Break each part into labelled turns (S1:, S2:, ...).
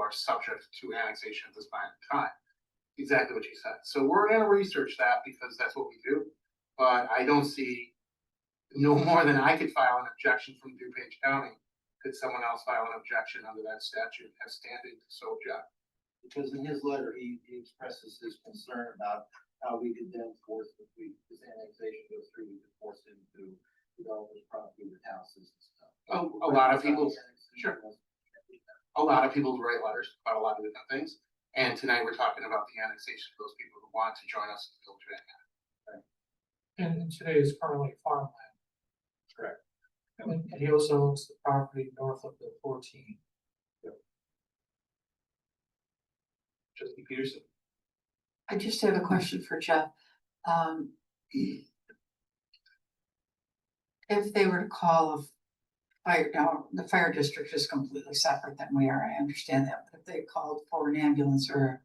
S1: are subject to annexation at this point in time. Exactly what you said. So we're gonna research that because that's what we do, but I don't see no more than I could file an objection from DuPage County. Could someone else file an objection under that statute have standing to so object?
S2: Because in his letter, he, he expresses his concern about how we could then force, if we, this annexation goes through, we could force him to develop his property with houses and stuff.
S1: A, a lot of people, sure.
S2: Annexation.
S1: a lot of people write letters about a lot of different things. And tonight we're talking about the annexation of those people who want to join us in Village of Antioch.
S3: And today is currently farmland.
S2: Correct.
S3: And and he also owns the property north of the fourteen.
S1: Trustee Peterson,
S4: I just have a question for Jeff. Um. If they were to call of fire, now, the fire district is completely separate than we are, I understand that, but if they called for an ambulance or.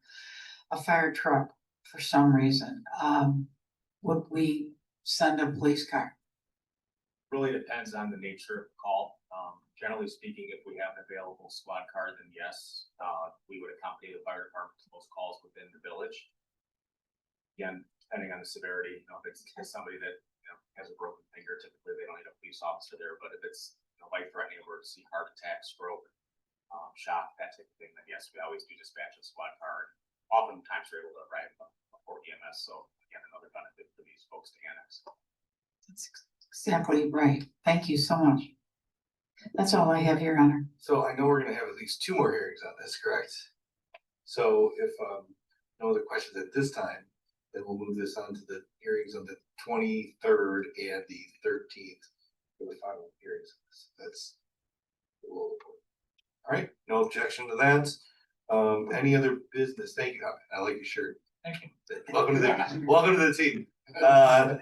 S4: A fire truck for some reason, um, would we send a police car?
S5: really depends on the nature of the call. Um, generally speaking, if we have an available squad car, then yes, uh, we would accompany the fire department to most calls within the village. Again, depending on the severity, you know, if it's somebody that, you know, has a broken finger, typically they don't need a police officer there, but if it's a life-threatening emergency, heart attack, stroke, um, shock, that type of thing, then yes, we always do dispatch a squad car. Oftentimes we're able to arrive before EMS, so again, another benefit for these folks to annex.
S4: That's ex- exactly right, thank you so much. That's all I have, Your Honor.
S6: So I know we're gonna have at least two more hearings on this, correct? So if um no other questions at this time, then we'll move this on to the hearings on the twenty-third and the thirteenth. For the final hearings, that's. All right, no objection to that. Um, any other business? Thank you, Howard. I like your shirt.
S3: Thank you.
S6: Welcome to the, welcome to the team. Uh,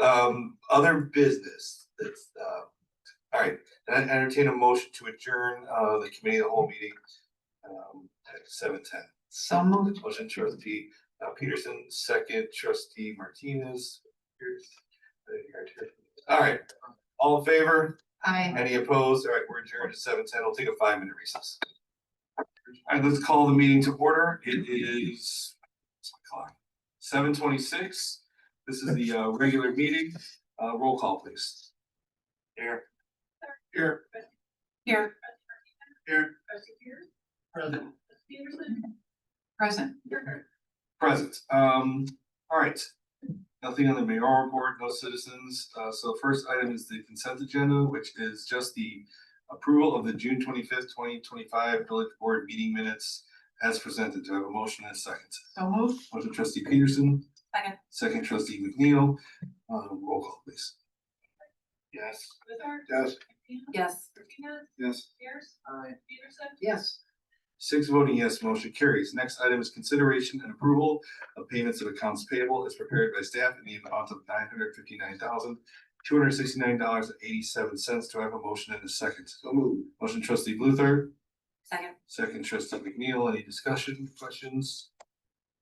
S6: Um, other business that's, uh, all right, I entertain a motion to adjourn, uh, the committee of the whole meeting. Um, at seven ten,
S4: So moved,
S6: motion trustee uh, Peterson, second trustee Martinez. Here's- uh, All right, all in favor,
S4: I.
S6: any opposed, all right, we're adjourned at seven ten, I'll take a five minute recess. All right, let's call the meeting to order, it is. Seven twenty six, this is the uh regular meeting, uh roll call please. Here. Here.
S4: Here,
S6: Here.
S3: President.
S4: present.
S6: Present, um, all right. Nothing on the mayoral report, no citizens, uh, so first item is the consent agenda, which is just the. Approval of the June twenty-fifth, twenty twenty-five village board meeting minutes as presented, do I have a motion and a second?
S4: So moved.
S6: Motion trustee Peterson.
S4: Second.
S6: Second trustee McNeil, uh, roll call please.
S1: yes.
S6: Yes.
S4: Yes.
S6: Yes.
S7: Pierce,
S2: Aye.
S7: Peterson,
S2: Yes.
S6: Six voting yes, motion carries. Next item is consideration and approval of payments of accounts payable as prepared by staff in the amount of nine hundred fifty-nine thousand, two hundred sixty-nine dollars and eighty-seven cents. Do I have a motion and a second? So moved. Motion trustee Luther,
S4: Second.
S6: second trustee McNeil. Any discussion, questions?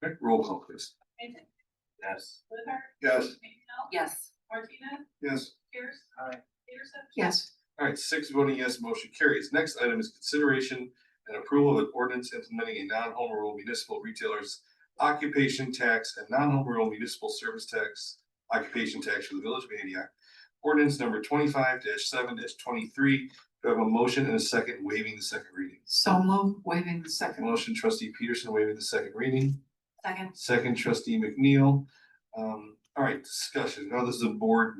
S6: Okay, Roll call please.
S7: Mason,
S6: Yes.
S7: Luther,
S6: Yes.
S7: McNeil,
S4: Yes.
S7: Martinez,
S6: Yes.
S7: Pierce.
S2: Aye.
S7: Peterson.
S4: Yes.
S6: All right, six voting yes, motion carries. Next item is consideration and approval of an ordinance implementing a non-home rule municipal retailers occupation tax and non-home rule municipal service tax occupation tax for the village of Antioch. Ordinance number twenty-five seven twenty-three. Do I have a motion and a second waiving the second reading?
S4: So moved, waiving the second.
S6: Motion trustee Peterson waiving the second reading.
S4: Second.
S6: Second trustee McNeil. Um, all right, discussion. Now this is a board,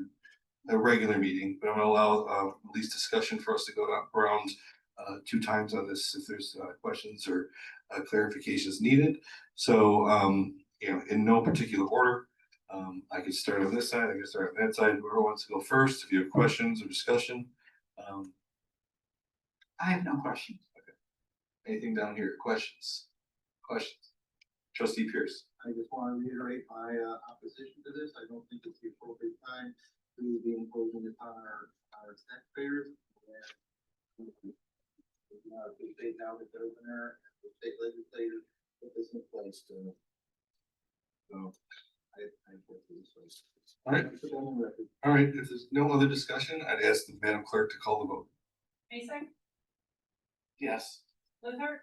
S6: a regular meeting, but I'm gonna allow uh at least discussion for us to go down- around uh two times on this if there's uh questions or uh clarifications needed. So um, you know, in no particular order. Um, I could start on this side, I could start on that side, whoever wants to go first, if you have questions or discussion. Um,
S4: I have no question.
S6: anything down here, questions? Questions? Trustee Pierce.
S2: I just want to reiterate my uh, opposition to this. I don't think it's the appropriate time to be imposing this on our, our taxpayers. And we uh, we stay down with the governor, and the state legislature, put this in place to. So, I, I vote for this place.
S6: All right.
S2: Put that on record.
S6: All right, if there's no other discussion, I'd ask the Madam Clerk to call the vote.
S7: Mason,
S6: Yes.
S7: Luther?